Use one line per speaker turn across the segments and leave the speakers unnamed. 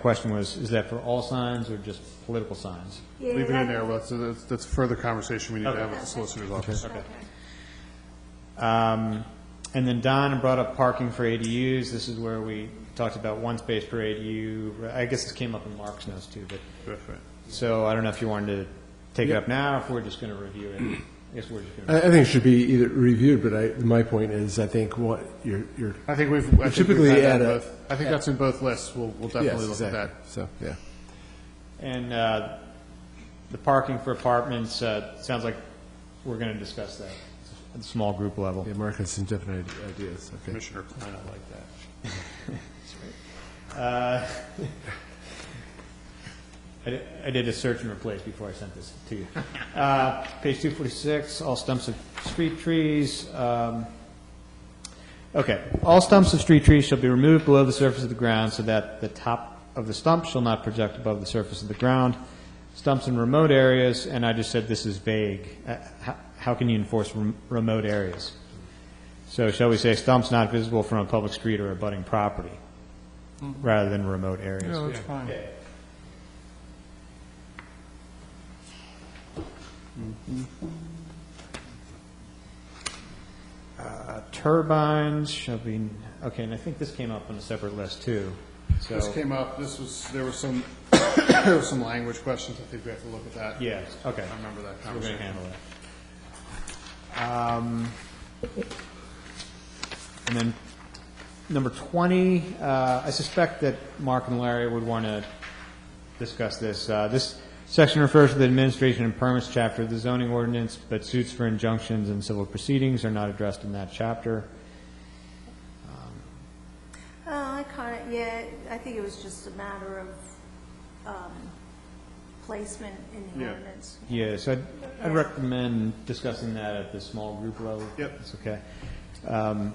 Question was, is that for all signs or just political signs?
Yeah,
Leave it
that-
in there, that's, that's- that's further conversation we need to have with the solicitor's office.
Um, And then Don brought up parking for ADUs. This is where we talked about one space per ADU. I guess this came up in Mark's notes too, but,
Perfect.
so I don't know if you wanted to take it up now, or if we're just going to review it. I guess we're just going to.
I, I think it should be either reviewed, but I, my point is, I think what you're, you're,
I think we've, I think
Typically
we've had that
add a-
both. I think that's in both lists, we'll, we'll
yes,
definitely look at that.
exactly, so, yeah.
And uh, the parking for apartments, uh, sounds like we're going to discuss that at the small group level.
Yeah, Mark has some definite ideas, okay.
Commissioner Klein, I like that.
I did- I did a search and replace before I sent this to you. Uh, Page 246, all stumps of street trees. um, Okay. All stumps of street trees shall be removed below the surface of the ground so that the top of the stump shall not project above the surface of the ground. Stumps in remote areas, and I just said this is vague. Uh, how- How can you enforce rem- remote areas? So shall we say stumps not visible from a public street or abutting property, rather than remote areas?
that's fine. Mm-hmm.
Uh, Turbines shall be, okay, and I think this came up on a separate list, too. So,
This came up, this was, there was some, there was some language questions, I think we have to look at that.
yeah, okay.
I remember that
We're going
conversation.
to handle that. Um, And then, number 20, uh, I suspect that Mark and Larry would want to discuss this. Uh, This section refers to the administration and permits chapter of the zoning ordinance, but suits for injunctions and civil proceedings are not addressed in that chapter.
Oh, I kind of, yeah, I think it was just a matter of um, placement in the
Yeah.
ordinance.
Yeah, so I'd, I'd recommend discussing that at the small group level.
Yep.
That's okay.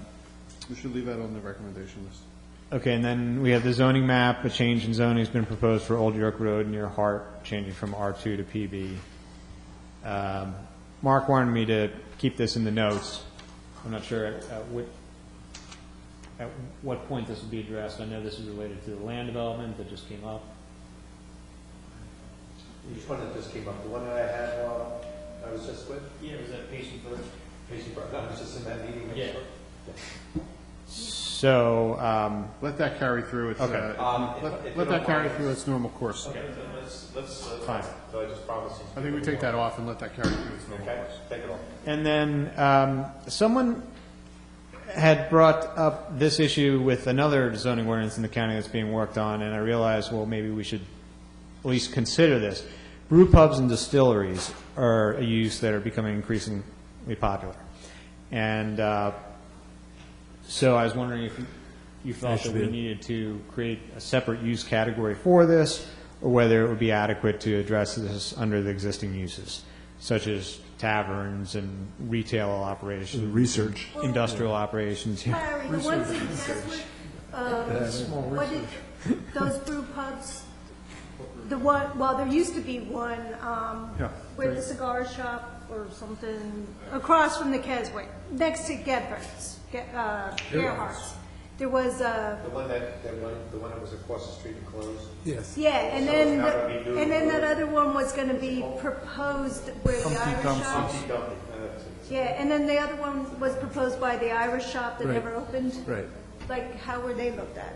We should leave that on the recommendation list.
Okay, and then we have the zoning map, a change in zoning has been proposed for Old York Road near Hart, changing from R2 to PB. Um, Mark wanted me to keep this in the notes. I'm not sure at at what, at what point this will be addressed. I know this is related to the land development that just came up.
Which one that just came up, the one that I had, uh, I was just with,
Yeah, was that patient first?
Casey Brown, I was just in that meeting.
Yeah. So, um,
Let that carry through its,
Okay.
uh,
Um, if-
let let
if you
that
don't
carry
mind-
through its normal course.
Let's, let's, uh,
Fine.
so I just promised you.
I think we take that off and let that carry through its normal
Okay,
course.
take it off.
And then um, someone had brought up this issue with another zoning ordinance in the county that's being worked on, and I realized, well, maybe we should at least consider this. Brew pubs and distilleries are a use that are becoming increasingly popular. And uh, so I was wondering if you felt that we needed to create a separate use category for this, or whether it would be adequate to address this under the existing uses, such as taverns and retail operations,
Research.
industrial operations. yeah.
Larry, the ones in Keswick, uh, what did, those brew pubs, the one, well, there used to be one, um,
Yeah.
where the cigar shop or something, across from the Keswick, next to Gebhardt's, Ge- uh, Gerhardt's. There was a,
The one that, that one, the one that was across the street and closed,
Yes.
Yeah, and then,
So it's not gonna be
the-
new.
and then that other one was gonna be proposed where the Irish shop.
Humpty Dumpty, uh, that's it.
Yeah, and then the other one was proposed by the Irish shop that
Right.
never opened.
Right.
Like, how were they looked at?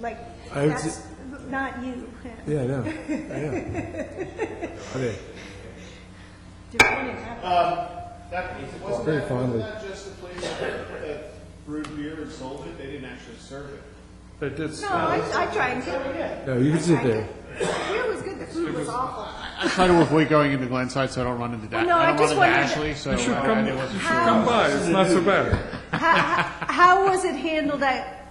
Like,
I would
that's not you. Do
Yeah, I know, I know. Okay,
we wanna have-
That, wasn't
Very
that,
fondly.
wasn't that just the place that that brewed beer and sold it? They didn't actually serve it. They did
No, I, I drank it.
no, you can sit there.
Beer was good, the food was awful.
I try to avoid going into Glenside so I don't run into that.
Well, no, I
don't
just
run into Ashley,
wondered-
so I, I wasn't sure.
How-
by, it's not so bad.
How, how was it handled at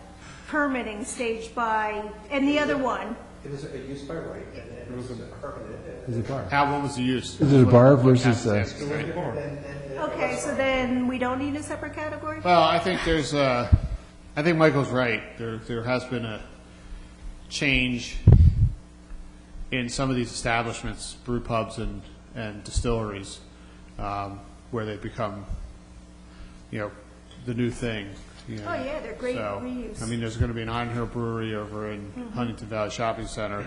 permitting stage by, and the other one?
It was a use by right, and then it was permanent, and
Is it a bar?
How, what was the use?
Is it a bar versus, uh,
Ask the way.
Okay, so then we don't need a separate category?
Well, I think there's, uh, I think Michael's right. There, there has been a change in some of these establishments, brew pubs and, and distilleries, um, where they've become, you know, the new thing. you know.
Oh, yeah, they're great
So,
reuse.
I mean, there's going to be an Iron Hill Brewery over in Huntington Valley Shopping Center,